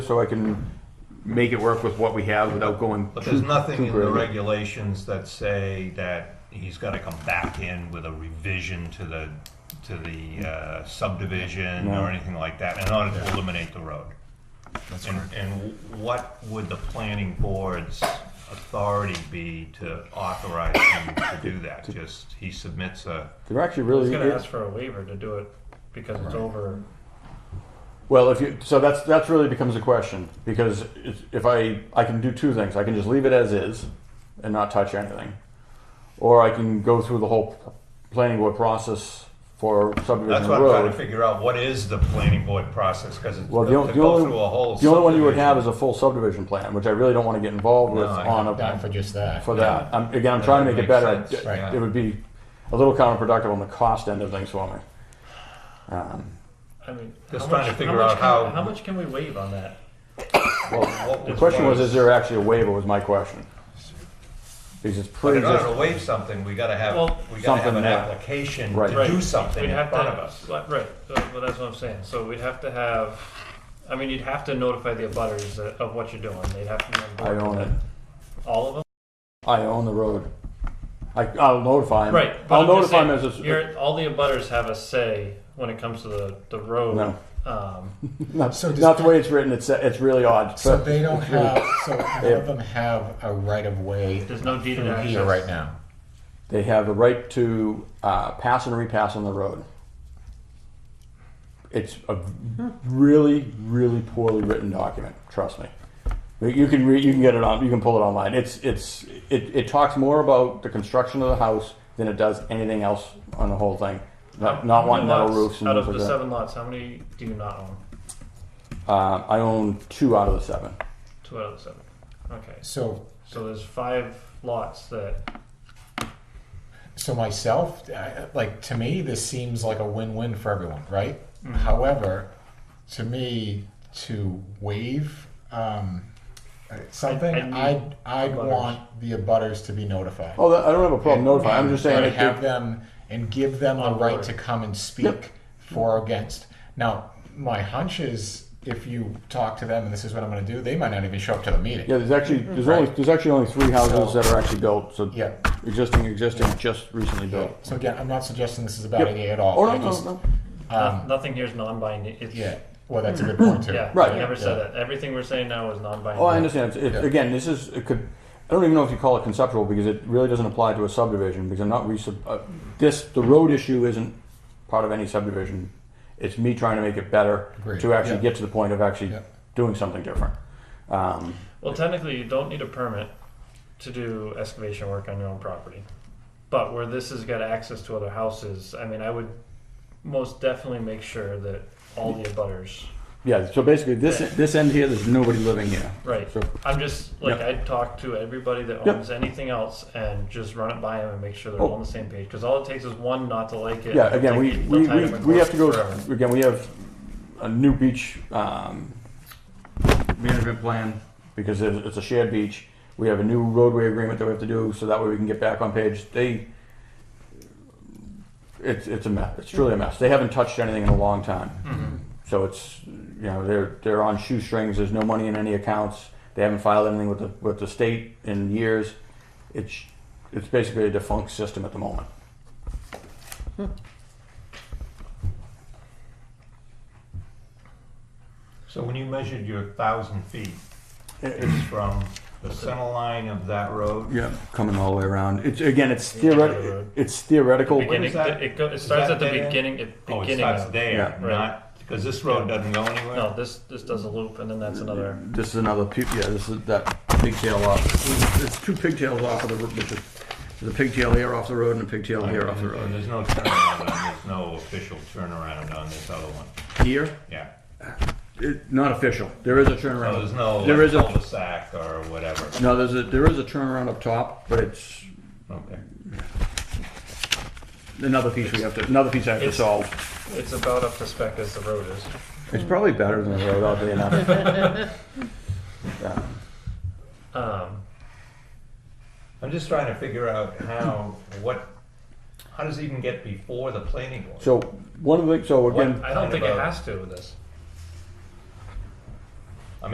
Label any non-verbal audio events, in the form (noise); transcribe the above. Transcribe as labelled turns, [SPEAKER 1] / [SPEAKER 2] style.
[SPEAKER 1] so I can make it work with what we have without going.
[SPEAKER 2] But there's
[SPEAKER 1] too-
[SPEAKER 2] nothing
[SPEAKER 1] too
[SPEAKER 2] in the
[SPEAKER 1] great.
[SPEAKER 2] regulations that say that he's gotta come back in with a revision to the, to the uh, subdivision
[SPEAKER 1] No.
[SPEAKER 2] or anything like that in order to eliminate the road. And, and what would the planning board's authority be to authorize him to do that? Just, he submits a,
[SPEAKER 1] They're actually
[SPEAKER 3] I was
[SPEAKER 1] really.
[SPEAKER 3] gonna ask for a waiver to do it because it's over.
[SPEAKER 1] Well, if you so that's that's really becomes a question because it's- if I I can do two things, I can just leave it as is and not touch anything, or I can go through the whole planning board process for subdivision
[SPEAKER 2] that's what I'm
[SPEAKER 1] road.
[SPEAKER 2] trying to figure out, what is the planning board process? Cause it's,
[SPEAKER 1] Well,
[SPEAKER 2] to
[SPEAKER 1] the,
[SPEAKER 2] go
[SPEAKER 1] on- the only
[SPEAKER 2] through a whole.
[SPEAKER 1] the only one you would have is
[SPEAKER 2] subdivision.
[SPEAKER 1] a full subdivision plan, which I really don't want to get involved with
[SPEAKER 2] No, I-
[SPEAKER 1] on a
[SPEAKER 4] Not for just that.
[SPEAKER 1] for that. I'm, again, I'm
[SPEAKER 2] That
[SPEAKER 1] trying to make
[SPEAKER 2] doesn't
[SPEAKER 1] it
[SPEAKER 2] make
[SPEAKER 1] better.
[SPEAKER 2] sense,
[SPEAKER 1] It-
[SPEAKER 2] right.
[SPEAKER 1] It would be a little counterproductive on the cost end of things for me. Um,
[SPEAKER 3] I mean,
[SPEAKER 2] Just
[SPEAKER 3] how
[SPEAKER 2] trying
[SPEAKER 3] much,
[SPEAKER 2] to figure
[SPEAKER 3] much
[SPEAKER 2] out
[SPEAKER 3] can,
[SPEAKER 2] how-
[SPEAKER 3] how much can we waive on that?
[SPEAKER 2] What
[SPEAKER 1] The question was,
[SPEAKER 2] what-
[SPEAKER 1] is there actually a waiver? Was my question. Because it's
[SPEAKER 2] But
[SPEAKER 1] pretty.
[SPEAKER 2] in order to waive something, we gotta have,
[SPEAKER 3] Well-
[SPEAKER 2] we gotta have
[SPEAKER 1] Something
[SPEAKER 2] an
[SPEAKER 1] there.
[SPEAKER 2] application
[SPEAKER 1] Right.
[SPEAKER 2] to
[SPEAKER 3] Right.
[SPEAKER 2] do something
[SPEAKER 3] We'd
[SPEAKER 2] in
[SPEAKER 3] have
[SPEAKER 2] front
[SPEAKER 3] to-
[SPEAKER 2] of us.
[SPEAKER 3] Right, right. So- well, that's what I'm saying. So we'd have to have. I mean, you'd have to notify the abutters that- of what you're doing. They'd have to. Be on
[SPEAKER 1] I
[SPEAKER 3] board
[SPEAKER 1] own
[SPEAKER 3] with
[SPEAKER 1] it.
[SPEAKER 3] All of them.
[SPEAKER 1] I own the road. I, I'll notify him.
[SPEAKER 3] Right. but
[SPEAKER 1] I'll
[SPEAKER 3] I'm just
[SPEAKER 1] notify him as
[SPEAKER 3] saying,
[SPEAKER 1] it's.
[SPEAKER 3] you're- all the abutters have a say when it comes to the the road.
[SPEAKER 1] No.
[SPEAKER 3] Um,
[SPEAKER 1] (laughs) Not,
[SPEAKER 4] So does-
[SPEAKER 1] not the way it's written. It's it's really odd.
[SPEAKER 4] So
[SPEAKER 1] but-
[SPEAKER 4] they don't have, so none of them have a right of way
[SPEAKER 3] there's no deed of
[SPEAKER 4] through
[SPEAKER 3] access
[SPEAKER 4] here right now.
[SPEAKER 1] They have a right to uh, pass and repass on the road. It's a really, really poorly written document. Trust me. But You can re- you can get it on you can pull it online. It's it's it, it talks more about the construction of the house than it does anything else on the whole thing. Not, not
[SPEAKER 3] How
[SPEAKER 1] wanting
[SPEAKER 3] many
[SPEAKER 1] metal
[SPEAKER 3] lots
[SPEAKER 1] roofs and
[SPEAKER 3] Out of
[SPEAKER 1] things
[SPEAKER 3] the
[SPEAKER 1] like that.
[SPEAKER 3] seven lots, how many do you not own?
[SPEAKER 1] Uh, I own two out of the seven.
[SPEAKER 3] Two out of the seven. Okay.
[SPEAKER 4] So,
[SPEAKER 3] So there's five lots that
[SPEAKER 4] so myself, I- like, to me, this seems like a win-win for everyone, right?
[SPEAKER 3] Mm-hmm.
[SPEAKER 4] However, to me, to waive, um, something,
[SPEAKER 3] I'd need
[SPEAKER 4] I'd, I'd
[SPEAKER 3] abutters.
[SPEAKER 4] want the abutters to be notified.
[SPEAKER 1] Oh, that, I don't have a problem notifying. I'm just saying
[SPEAKER 4] And
[SPEAKER 1] it,
[SPEAKER 4] have
[SPEAKER 1] it,
[SPEAKER 4] them and give them a
[SPEAKER 3] On
[SPEAKER 4] right
[SPEAKER 3] board.
[SPEAKER 4] to come and speak for or against. Now, my hunch is if you talk to them and this is what I'm going to do, they might not even show up to the meeting.
[SPEAKER 1] yeah. There's actually there's
[SPEAKER 4] Mm-hmm. Right.
[SPEAKER 1] only there's actually only three houses
[SPEAKER 4] So-
[SPEAKER 1] that are actually built. So
[SPEAKER 4] Yeah.
[SPEAKER 1] existing, existing, just recently built.
[SPEAKER 4] So again, I'm not suggesting this is a bad
[SPEAKER 1] Yep.
[SPEAKER 4] idea at all.
[SPEAKER 1] Oh no,
[SPEAKER 4] I
[SPEAKER 1] no,
[SPEAKER 4] just-
[SPEAKER 1] no. Um,
[SPEAKER 3] no- nothing here is non-binding. It's,
[SPEAKER 4] Yeah. Well, that's a good point too.
[SPEAKER 3] Yeah,
[SPEAKER 1] Right.
[SPEAKER 3] I never
[SPEAKER 4] Yeah.
[SPEAKER 3] said that. Everything we're saying now is non-binding.
[SPEAKER 1] Oh, I understand. It's, it's,
[SPEAKER 4] Yeah.
[SPEAKER 1] Again, this is it could. I don't even know if you call it conceptual because it really doesn't apply to a subdivision because I'm not resub. Uh, this the road issue isn't part of any subdivision. It's me trying to make it better
[SPEAKER 4] Agreed.
[SPEAKER 1] to actually
[SPEAKER 4] Yeah.
[SPEAKER 1] get to the point of actually
[SPEAKER 4] Yeah.
[SPEAKER 1] doing something different. Um,
[SPEAKER 3] Well, technically, you don't need a permit to do excavation work on your own property. But where this has got access to other houses, I mean, I would most definitely make sure that all the abutters.
[SPEAKER 1] yeah. So basically, this this end here, there's nobody living here.
[SPEAKER 3] Right.
[SPEAKER 1] So
[SPEAKER 3] I'm just like
[SPEAKER 1] Yeah.
[SPEAKER 3] I'd talk to everybody that
[SPEAKER 1] Yeah.
[SPEAKER 3] owns anything else and just run it by them and make sure they're
[SPEAKER 1] Oh.
[SPEAKER 3] all on the same page. Because all it takes is one not to like it.
[SPEAKER 1] Yeah,
[SPEAKER 3] and
[SPEAKER 1] again,
[SPEAKER 3] they'll
[SPEAKER 1] we,
[SPEAKER 3] take-
[SPEAKER 1] we,
[SPEAKER 3] they'll tie
[SPEAKER 1] we,
[SPEAKER 3] them in
[SPEAKER 1] we have to go,
[SPEAKER 3] forever.
[SPEAKER 1] again, we have a new beach, um, management plan, because it's, it's a shared beach. We have a new roadway agreement that we have to do, so that way we can get back on page. They, it's, it's a mess, it's truly a mess. They haven't touched anything in a long time. So it's, you know, they're, they're on shoestrings, there's no money in any accounts. They haven't filed anything with the, with the state in years. It's, it's basically a defunct system at the moment.
[SPEAKER 2] So when you measured your thousand feet
[SPEAKER 1] It-
[SPEAKER 2] it's from the center line of that road,
[SPEAKER 1] Yeah, coming all the way around. It's again, it's
[SPEAKER 3] Yeah,
[SPEAKER 1] theoretical.
[SPEAKER 3] right.
[SPEAKER 1] It's theoretical.
[SPEAKER 2] Where
[SPEAKER 3] Beginning,
[SPEAKER 2] is that-
[SPEAKER 3] it, go, it
[SPEAKER 2] is
[SPEAKER 3] starts
[SPEAKER 2] that
[SPEAKER 3] at the
[SPEAKER 2] dead end?
[SPEAKER 3] beginning. It,
[SPEAKER 2] oh, it
[SPEAKER 3] beginning
[SPEAKER 2] starts
[SPEAKER 3] of-
[SPEAKER 2] there,
[SPEAKER 3] Yeah.
[SPEAKER 2] not, because this road doesn't go anywhere.
[SPEAKER 3] No, this this does a loop, and then that's another.
[SPEAKER 1] This is another. pu- Yeah, this is that pigtail off. It's two pigtails off of the. ro- There's a- there's a pigtail here off the road and a pigtail here off the
[SPEAKER 2] And
[SPEAKER 1] road.
[SPEAKER 2] there's no turnaround, on- there's no official turnaround on this other one,
[SPEAKER 1] Here,
[SPEAKER 2] yeah.
[SPEAKER 1] it, not official. There is a
[SPEAKER 2] So
[SPEAKER 1] turnaround.
[SPEAKER 2] there's no
[SPEAKER 1] There
[SPEAKER 2] like,
[SPEAKER 1] is a.
[SPEAKER 2] cul-de-sac or whatever,
[SPEAKER 1] No, there's a. There is a turnaround up top, but it's
[SPEAKER 2] okay.
[SPEAKER 1] another piece we have to. Another piece I have to
[SPEAKER 3] It's-
[SPEAKER 1] solve.
[SPEAKER 3] It's about up to spec as the road is.
[SPEAKER 1] It's probably better than the road, oddly enough. Yeah.
[SPEAKER 3] Um,
[SPEAKER 2] I'm just trying to figure out how, what, how does it even get before the planning board?
[SPEAKER 1] So one of the. So again.
[SPEAKER 3] I don't think it
[SPEAKER 2] About-
[SPEAKER 3] has to with this.